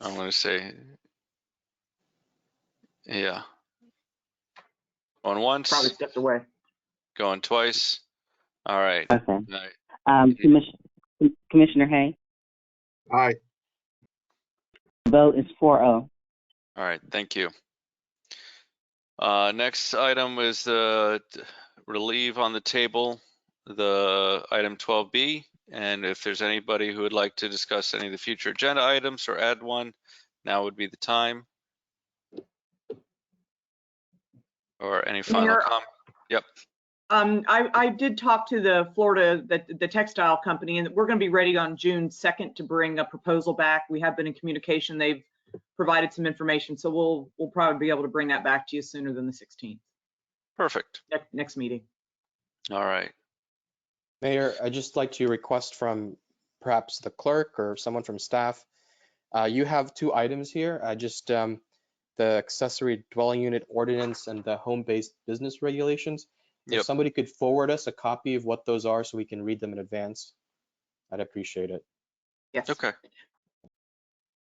I'm gonna say. Yeah. Going probably once, stepped away. going twice. All right, Okay. all right. Um, Commissioner, Commissioner Hay, Aye. vote is four oh. All right, thank you. Uh, next item is uh, t- relieve on the table, the item 12B. And if there's anybody who would like to discuss any of the future agenda items or add one, now would be the time. Or any final Mayor- comment? Um, I, I did talk to the Florida, the, the textile company, and we're gonna be ready on June second to bring a proposal back. We have been in communication. They've provided some information, so we'll, we'll probably be able to bring that back to you sooner than the sixteenth, Perfect. next, next meeting. All right. Mayor, I'd just like to request from perhaps the clerk or someone from staff. Uh, You have two items here. I just, um, the accessory dwelling unit ordinance and the home-based business regulations. Yep. If somebody could forward us a copy of what those are so we can read them in advance, I'd appreciate it. Yes. Okay.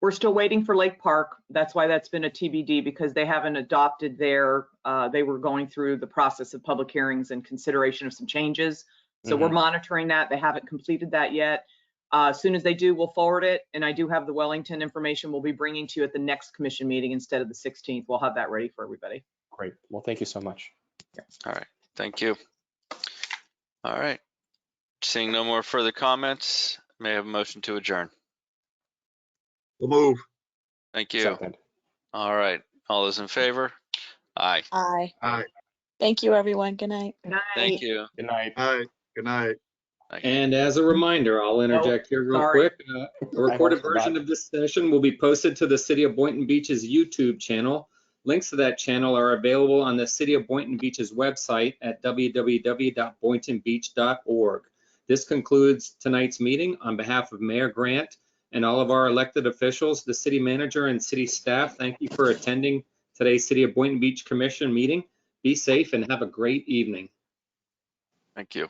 We're still waiting for Lake Park. That's why that's been a TBD because they haven't adopted their, uh, they were going through the process of public hearings and consideration of some changes. So we're monitoring that. They haven't completed that yet. Uh, as soon as they do, we'll forward it. And I do have the Wellington information we'll be bringing to you at the next commission meeting instead of the 16th. We'll have that ready for everybody. Great. Well, thank you so much. Thank you. All right. Seeing no more further comments, may I have a motion to adjourn? We'll move. Thank you. Second. All right. All those in favor? Aye. Aye. Aye. Thank you, everyone. Good night. Thank you. Good night. Aye. Good night. And as a reminder, I'll interject here real sorry. quick. uh, A recorded forgot. version of this session will be posted to the City of Boynton Beach's YouTube channel. Links to that channel are available on the City of Boynton Beach's website at www.boyntonbeach.org. This concludes tonight's meeting. On behalf of Mayor Grant and all of our elected officials, the city manager and city staff, thank you for attending today's City of Boynton Beach Commission meeting. Be safe and have a great evening. Thank you.